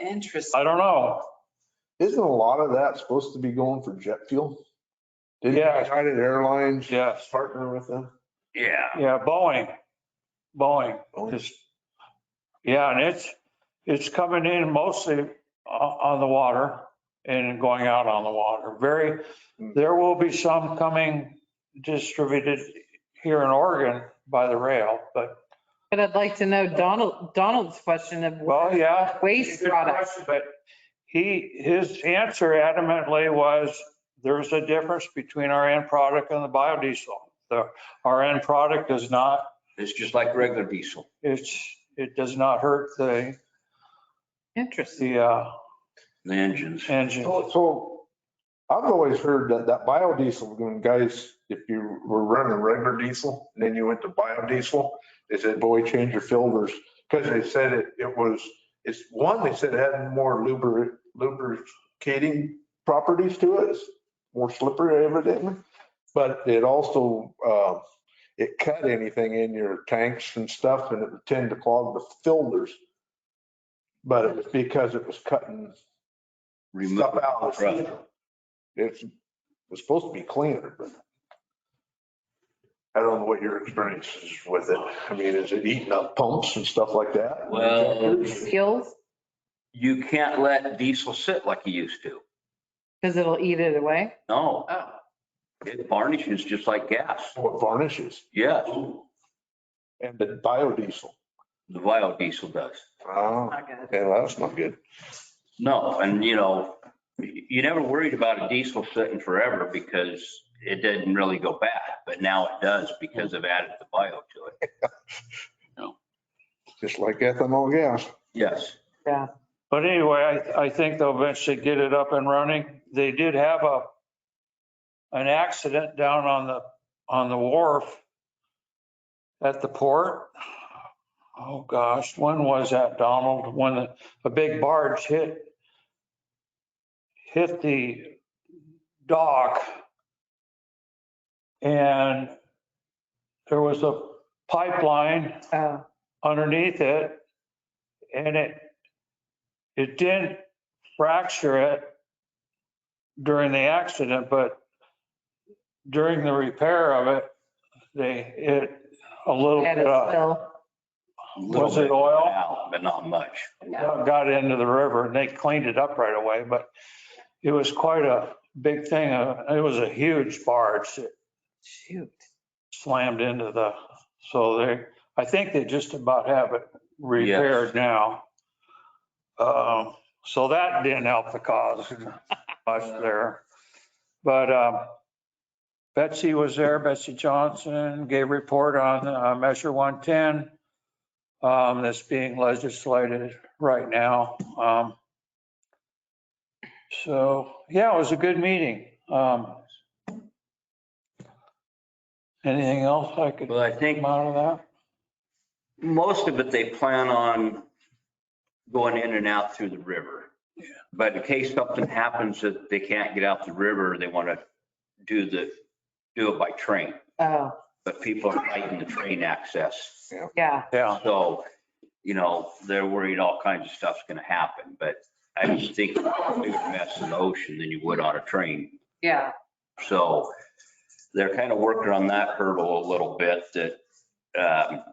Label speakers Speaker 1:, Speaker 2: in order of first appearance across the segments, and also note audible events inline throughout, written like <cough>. Speaker 1: Interesting.
Speaker 2: I don't know.
Speaker 3: Isn't a lot of that supposed to be going for jet fuel? Didn't
Speaker 2: Yeah.
Speaker 3: United Airlines
Speaker 2: Yes.
Speaker 3: partner with them?
Speaker 2: Yeah. Yeah, Boeing, Boeing, just, yeah, and it's, it's coming in mostly o- on the water and going out on the water. Very, there will be some coming distributed here in Oregon by the rail, but,
Speaker 1: But I'd like to know Donald, Donald's question of
Speaker 2: well, yeah.
Speaker 1: waste
Speaker 2: Good
Speaker 1: products.
Speaker 2: question, But he, his answer adamantly was, there's a difference between our end product and the biodiesel. The, our end product is not
Speaker 4: It's just like regular diesel.
Speaker 2: it's, it does not hurt the,
Speaker 1: Interesting.
Speaker 2: the uh,
Speaker 4: The engines.
Speaker 2: engine.
Speaker 3: So- So I've always heard that that biodiesel, when guys, if you were running regular diesel, and then you went to biodiesel, they said, boy, change your filters. Because they said it, it was, it's one, they said it had more lubric- lubricating properties to it, it's more slippery evidently. But it also, uh, it cut anything in your tanks and stuff and it would tend to clog the filters. But it was because it was cutting stuff
Speaker 4: remove-
Speaker 3: out of the
Speaker 4: Right.
Speaker 3: system. It's, it's supposed to be cleaner, but I don't know what your experience is with it. I mean, is it eating up pumps and stuff like that?
Speaker 4: Well-
Speaker 1: Skills,
Speaker 4: You can't let diesel sit like you used to.
Speaker 1: because it'll eat it away.
Speaker 4: No,
Speaker 1: Oh.
Speaker 4: it varnishes just like gas.
Speaker 3: What varnishes
Speaker 4: Yes,
Speaker 3: and the biodiesel.
Speaker 4: the biodiesel does.
Speaker 3: Oh,
Speaker 1: Not good.
Speaker 3: yeah, that's not good.
Speaker 4: No, and you know, you never worried about a diesel sitting forever because it didn't really go bad, but now it does because of added the bio to it.
Speaker 3: Just like ethanol gas.
Speaker 4: Yes.
Speaker 1: Yeah.
Speaker 2: But anyway, I, I think they'll eventually get it up and running. They did have a, an accident down on the, on the wharf at the port. Oh, gosh, when was that, Donald? When a big barge hit, hit the dock. And there was a pipeline
Speaker 1: Oh,
Speaker 2: underneath it and it, it didn't fracture it during the accident, but during the repair of it, they, it, a little
Speaker 1: had
Speaker 2: bit uh,
Speaker 1: a
Speaker 2: of-
Speaker 1: spill.
Speaker 4: a little
Speaker 2: Was it
Speaker 4: bit
Speaker 2: oil?
Speaker 4: out, But not much.
Speaker 2: got into the river and they cleaned it up right away, but it was quite a big thing. Uh, It was a huge barge that
Speaker 1: Shoot.
Speaker 2: slammed into the, so they, I think they just about have it repaired now. Um, So that didn't help the cause <laughs> much there. But um, Betsy was there, Betsy Johnson gave report on uh, Measure 110 um, that's being legislated right now. Um, So, yeah, it was a good meeting. Um, Anything else I could
Speaker 4: But I think
Speaker 2: come out of that?
Speaker 4: most of it, they plan on going in and out through the river. But in case something happens that they can't get out the river, they want to do the, do it by train.
Speaker 1: Oh,
Speaker 4: But people are fighting the train access.
Speaker 1: yeah.
Speaker 2: Yeah,
Speaker 4: So, you know, they're worried all kinds of stuff's going to happen. But I just think it's a bigger mess in the ocean than you would on a train.
Speaker 1: Yeah.
Speaker 4: So they're kind of working on that hurdle a little bit that, um,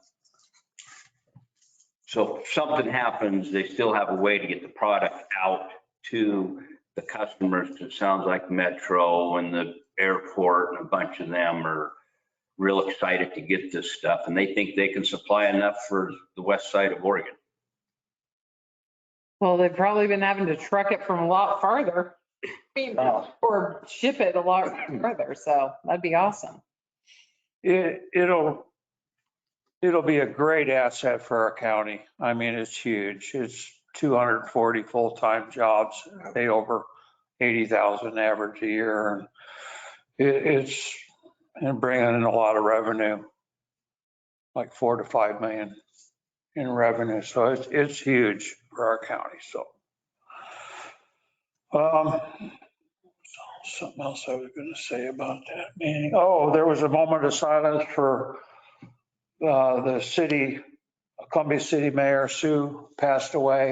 Speaker 4: so if something happens, they still have a way to get the product out to the customers. It sounds like Metro and the airport and a bunch of them are real excited to get this stuff and they think they can supply enough for the west side of Oregon.
Speaker 1: Well, they've probably been having to truck it from a lot farther. <laughs> I mean, Or ship it a lot further. So that'd be awesome.
Speaker 2: it, it'll, it'll be a great asset for our county. I mean, it's huge. It's 240 full-time jobs, pay over 80,000 average a year. and It, it's, and bringing in a lot of revenue, like four to five million in revenue. So it's, it's huge for our county, so. Um, something else I was going to say about that meeting. Oh, there was a moment of silence for uh, the city, Columbia City Mayor Sue passed away.